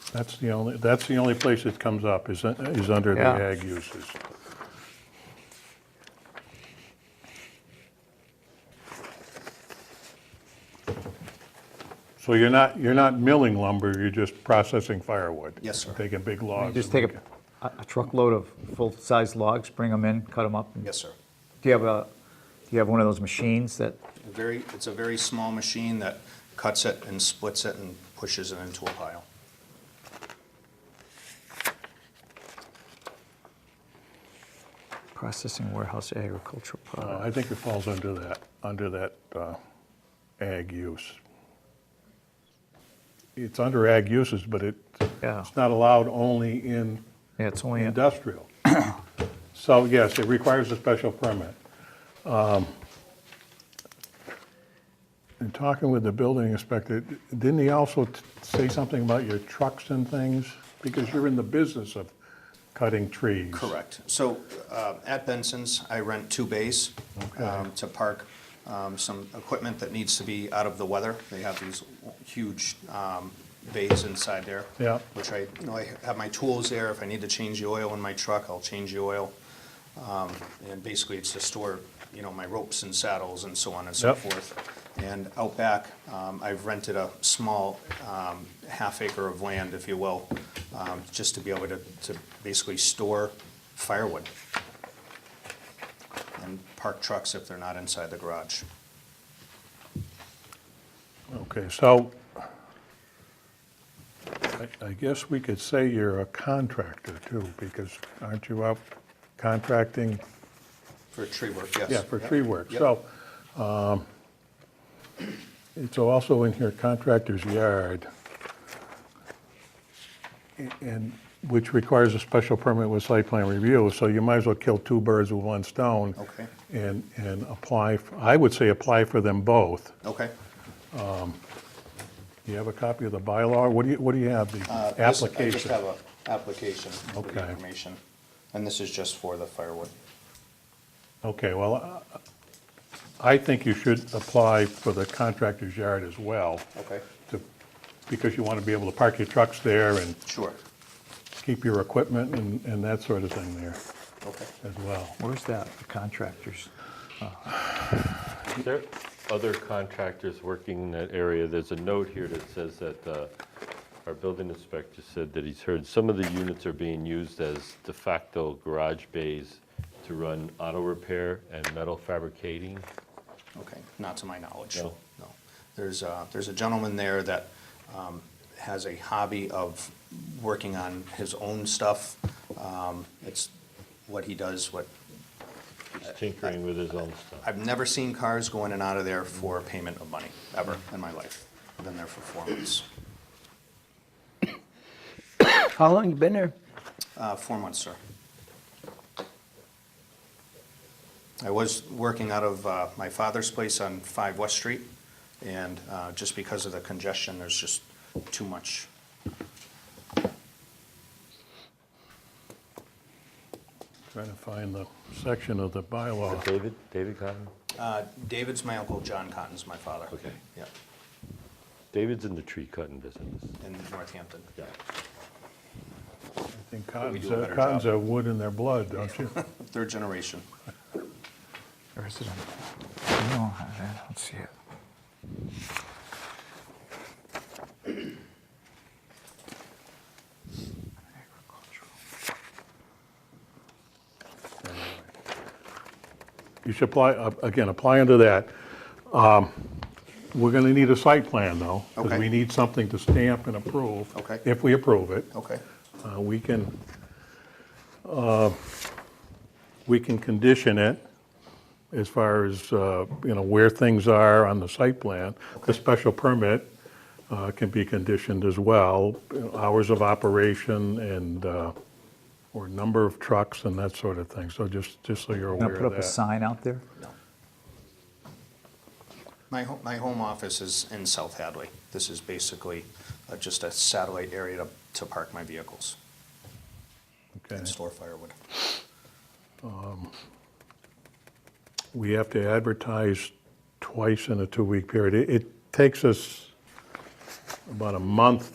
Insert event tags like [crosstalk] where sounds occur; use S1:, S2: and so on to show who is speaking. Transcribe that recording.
S1: That's the only, that's the only place it comes up, is, is under the
S2: Yeah.
S1: ag uses. So you're not, you're not milling lumber, you're just processing firewood?
S3: Yes, sir.
S1: Taking big logs?
S2: Just
S1: and
S2: take a- a a truckload of full-size logs, bring them in, cut them up? and-
S3: Yes, sir.
S2: Do you have a, do you have one of those machines that,
S3: A Very, it's a very small machine that cuts it and splits it and pushes it into a pile.
S2: processing warehouse agricultural
S1: Uh,
S2: product?
S1: I think it falls under that, under that uh, ag use. It's under ag uses, but it,
S2: Yeah,
S1: it's not allowed only in
S2: yeah, it's only, a-
S1: industrial. [coughs] So yes, it requires a special permit. Um, In talking with the building inspector, didn't he also t- say something about your trucks and things? Because you're in the business of cutting trees.
S3: Correct. So uh, at Benson's, I rent two bays um, to park um, some equipment that needs to be out of the weather. They have these huge um, bays inside there.
S1: Yeah.
S3: Which I, you know, I have my tools there. If I need to change the oil in my truck, I'll change the oil. Um, And basically, it's to store, you know, my ropes and saddles and so on and so
S1: Yep.
S3: forth. And out back, um, I've rented a small um, half acre of land, if you will, um, just to be able to, to basically store firewood and park trucks if they're not inside the garage.
S1: Okay, so I- I guess we could say you're a contractor too, because aren't you out contracting
S3: For tree work, yes.
S1: Yeah, for
S3: Yep.
S1: tree work,
S3: Yep.
S1: so. um, It's also in here contractor's yard. a- And, which requires a special permit with site plan review, so you might as well kill two birds with one stone.
S3: Okay.
S1: And, and apply, f- I would say apply for them both.
S3: Okay.
S1: You have a copy of the bylaw, what do you, what do you have, the
S3: Uh, this-
S1: application?
S3: I just have a application with the
S1: Okay.
S3: information, and this is just for the firewood.
S1: Okay, well, I- I think you should apply for the contractor's yard as well.
S3: Okay.
S1: to- Because you want to be able to park your trucks there and
S3: Sure.
S1: keep your equipment and, and that sort of thing there
S3: Okay.
S1: as well.
S2: where's that, the contractors?
S4: Are there other contractors working in that area? There's a note here that says that uh, our building inspector said that he's heard some of the units are being used as de facto garage bays to run auto repair and metal fabricating.
S3: Okay, not to my knowledge.
S4: No.
S3: No. There's a, there's a gentleman there that um, has a hobby of working on his own stuff. Um, It's what he does, what,
S4: He's tinkering with his own stuff.
S3: I've never seen cars go in and out of there for payment of money, ever in my life. I've Been there for four months,
S5: How long you been there?
S3: Uh, four months, sir. I was working out of uh, my father's place on 5 West Street, and uh, just because of the congestion, there's just too much
S1: Trying to find the section of the bylaw.
S4: David, David Cotton?
S3: Uh, David's my uncle, John Cotton's my father.
S4: Okay.
S3: Yeah,
S4: David's in the tree cutting business.
S3: in Northampton.
S4: Yeah.
S1: I think
S3: we
S1: cottons,
S3: do a better
S1: cottons
S3: job.
S1: have wood in their blood, don't you?
S3: Third generation.
S2: Or is it on? I don't have that. I don't see it.
S1: You should apply, uh, again, apply under that. Um, We're going to need a site plan though, because
S3: Okay.
S1: we need something to stamp and approve.
S3: Okay.
S1: If we approve it.
S3: Okay.
S1: Uh, We can, uh, we can condition it as far as, uh, you know, where things are on the site plan. The special permit uh, can be conditioned as well, you know, hours of operation and, uh, or number of trucks and that sort of thing. So just, just so you're
S2: Gonna
S1: aware
S2: put up
S1: of
S2: a
S1: that.
S2: sign out there?
S3: No. My, ho- my home office is in South Hadley. This is basically uh, just a satellite area to, to park my vehicles
S1: Okay.
S3: and store firewood.
S1: We have to advertise twice in a two-week period. It- It takes us about a month